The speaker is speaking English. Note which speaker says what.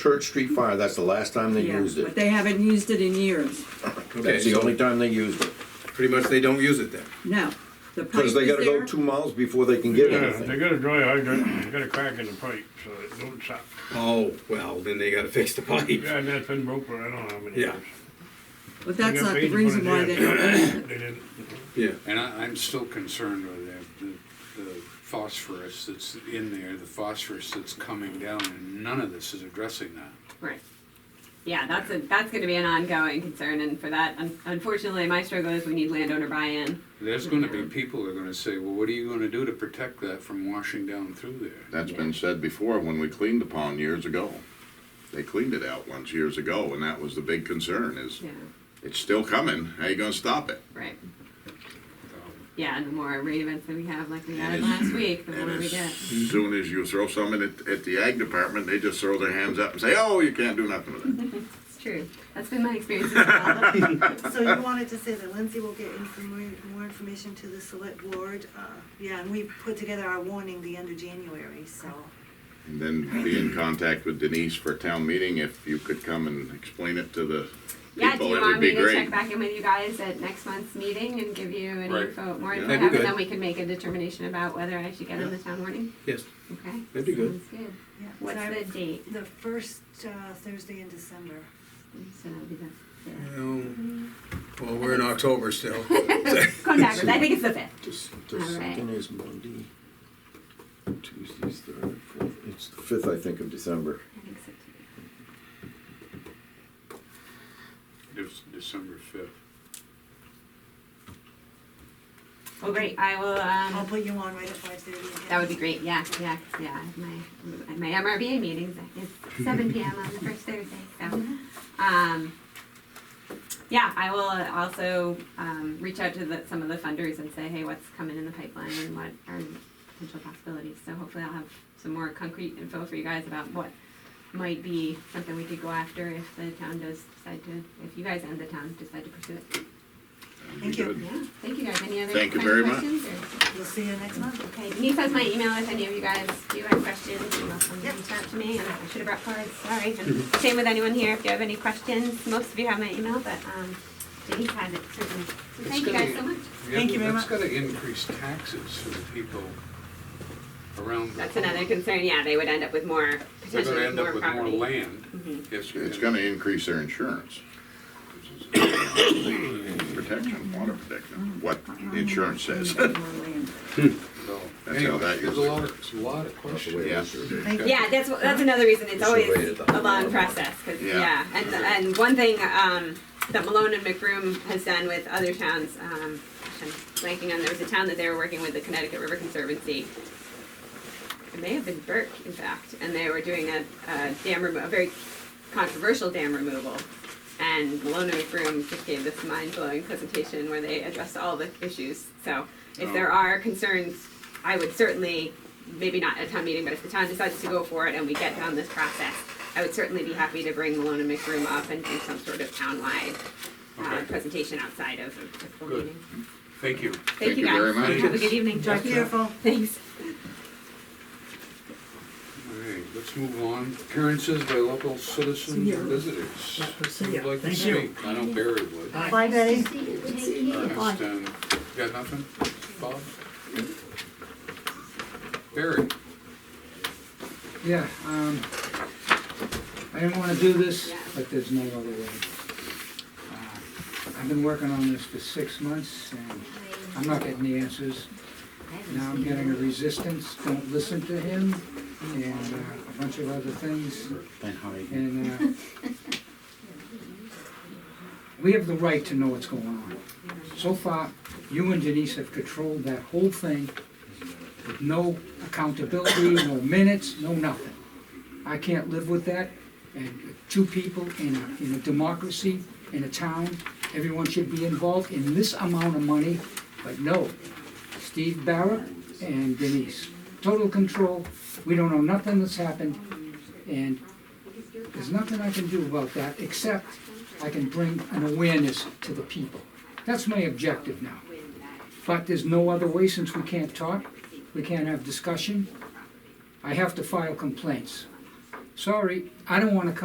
Speaker 1: Church Street Fire, that's the last time they
Speaker 2: Yeah,
Speaker 1: used
Speaker 2: but
Speaker 1: it.
Speaker 2: they haven't used it in years.
Speaker 1: That's the only time they used it.
Speaker 3: Pretty much they don't use it then.
Speaker 2: No. The pipe
Speaker 1: Because they
Speaker 2: is
Speaker 1: gotta go
Speaker 2: there.
Speaker 1: two miles before they can get
Speaker 4: Yeah, they
Speaker 1: anything.
Speaker 4: got a dry hydrant, and they got a crack in the pipe, so it don't suck.
Speaker 3: Oh, well, then they gotta fix the pipe.
Speaker 4: Yeah, and that's been broke for I don't know how many
Speaker 3: Yeah.
Speaker 4: years.
Speaker 2: But
Speaker 4: They
Speaker 2: that's
Speaker 4: got
Speaker 2: not
Speaker 4: paid
Speaker 2: the
Speaker 4: to put
Speaker 2: reason
Speaker 4: it
Speaker 2: why
Speaker 4: in.
Speaker 2: they don't use it.
Speaker 4: They didn't.
Speaker 3: Yeah,
Speaker 5: And I, I'm still concerned with the, the, the phosphorus that's in there, the phosphorus that's coming down, and none of this is addressing that.
Speaker 6: Right. Yeah, that's a, that's gonna be an ongoing concern, and for that, un- unfortunately, my struggle is we need landowner buy-in.
Speaker 5: There's gonna be people that are gonna say, well, what are you gonna do to protect that from washing down through there?
Speaker 7: That's been said before when we cleaned the pond years ago. They cleaned it out once years ago, and that was the big concern is,
Speaker 6: Yeah,
Speaker 7: it's still coming, how you gonna stop it?
Speaker 6: right.
Speaker 5: Um,
Speaker 6: Yeah, and the more rate events that we have, like we
Speaker 7: And
Speaker 6: had
Speaker 7: as-
Speaker 6: last week, the
Speaker 7: And
Speaker 6: more we
Speaker 7: as
Speaker 6: get.
Speaker 7: soon as you throw something at, at the ag department, they just throw their hands up and say, oh, you can't do nothing with it.
Speaker 6: It's true. That's been my experience as well.
Speaker 8: So you wanted to say that Lindsay will get informa- more information to the select board? uh, Yeah, and we put together our warning the end of January, so.
Speaker 7: And then be in contact with Denise for a town meeting, if you could come and explain it to the
Speaker 6: Yeah, do
Speaker 7: people,
Speaker 6: you
Speaker 7: it
Speaker 6: want
Speaker 7: would
Speaker 6: me
Speaker 7: be
Speaker 6: to
Speaker 7: great.
Speaker 6: check back in with you guys at next month's meeting and give you any
Speaker 5: Right.
Speaker 6: info, more
Speaker 7: Yeah.
Speaker 3: That'd
Speaker 6: info,
Speaker 3: be
Speaker 6: and
Speaker 3: good.
Speaker 6: then we can make a determination about whether I should get on the town warning?
Speaker 3: yes,
Speaker 6: Okay,
Speaker 3: that'd be good.
Speaker 6: sounds good.
Speaker 8: yeah.
Speaker 6: What's
Speaker 8: So,
Speaker 6: the date?
Speaker 8: The first uh, Thursday in December.
Speaker 6: So that'll be the fifth.
Speaker 3: Well, we're in October still.
Speaker 6: Come back, I think it's the fifth.
Speaker 9: Just,
Speaker 6: All
Speaker 9: just
Speaker 6: right.
Speaker 9: something is Monday, Tuesday's third, fourth, it's the
Speaker 1: Fifth, I think, of December.
Speaker 6: I think so too.
Speaker 5: It's December fifth.
Speaker 6: Well, great, I will,
Speaker 8: I'll
Speaker 6: um,
Speaker 8: put you on right at five thirty again.
Speaker 6: that would be great, yeah, yeah, yeah, my, my MRBA meetings is seven PM on the first Thursday, so. Um, yeah, I will also, um, reach out to the, some of the funders and say, hey, what's coming in the pipeline and what are potential possibilities, so hopefully I'll have some more concrete info for you guys about what might be something we could go after if the town does decide to, if you guys and the town decide to pursue it.
Speaker 8: Thank you.
Speaker 7: Good.
Speaker 6: Yeah, thank you guys, any other
Speaker 7: Thank you
Speaker 6: kind
Speaker 7: very
Speaker 6: of
Speaker 7: much.
Speaker 6: questions or?
Speaker 8: We'll see you next month.
Speaker 6: Okay, Denise has my email if any of you guys do have questions, you're welcome to
Speaker 8: Yep.
Speaker 6: reach out to me, and I should have brought cards, sorry. And Same with anyone here, if you have any questions, most of you have my email, but, um, Denise has it certainly. So thank you guys so much.
Speaker 8: Thank you very
Speaker 5: That's gonna increase taxes for the people around. the-
Speaker 6: That's another concern, yeah, they would end up with more,
Speaker 5: They're gonna
Speaker 6: potentially
Speaker 5: end up
Speaker 6: more
Speaker 5: with more
Speaker 6: property. Mm-hmm.
Speaker 5: land. if you-
Speaker 7: It's gonna increase their insurance. Protection, water protection, what the insurance says.
Speaker 5: So,
Speaker 7: how
Speaker 5: anyway,
Speaker 7: that
Speaker 5: There's a
Speaker 7: usually
Speaker 5: lot,
Speaker 7: works.
Speaker 5: there's a lot of questions.
Speaker 7: Yeah.
Speaker 8: Thank you.
Speaker 6: Yeah, that's, wh- that's another reason it's always
Speaker 1: waited the
Speaker 6: a long process, 'cause-
Speaker 7: Yeah.
Speaker 6: yeah, and, and one thing, um, that Malone and McBroom has done with other towns, um, gosh, I'm blanking on, there was a town that they were working with, the Connecticut River Conservancy. It may have been Burke, in fact, and they were doing a, a dam remo- a very controversial dam removal. And Malone and McBroom just gave this mind-blowing presentation where they addressed all the issues, so if there are concerns, I would certainly, maybe not at a town meeting, but if the town decides to go for it and we get down this process, I would certainly be happy to bring Malone and McBroom up and do some sort of townwide uh,
Speaker 5: Okay.
Speaker 6: presentation outside of a typical
Speaker 5: Good.
Speaker 6: meeting.
Speaker 5: Thank you.
Speaker 6: Thank you guys.
Speaker 7: very much.
Speaker 6: Have a good evening.
Speaker 8: Drive careful.
Speaker 6: Thanks.
Speaker 5: All right, let's move on. Appearances by local citizens or visitors. Who'd like to speak? I know Barry would.
Speaker 8: Bye, Betty.
Speaker 5: Ernest, um, you got nothing, Bob? Barry?
Speaker 10: Yeah, um, I didn't wanna do this, but there's no other way. Uh, I've been working on this for six months and I'm not getting the answers. Now I'm getting a resistance, don't listen to him, and uh, a bunch of other things, and, uh, we have the right to know what's going on. So far, you and Denise have controlled that whole thing with no accountability, no minutes, no nothing. I can't live with that. And two people in a, in a democracy, in a town, everyone should be involved in this amount of money, but no. Steve Barrett and Denise, total control. We don't know nothing that's happened, and there's nothing I can do about that, except I can bring an awareness to the people. That's my objective now. But there's no other way since we can't talk, we can't have discussion. I have to file complaints.
Speaker 8: sorry, I don't wanna come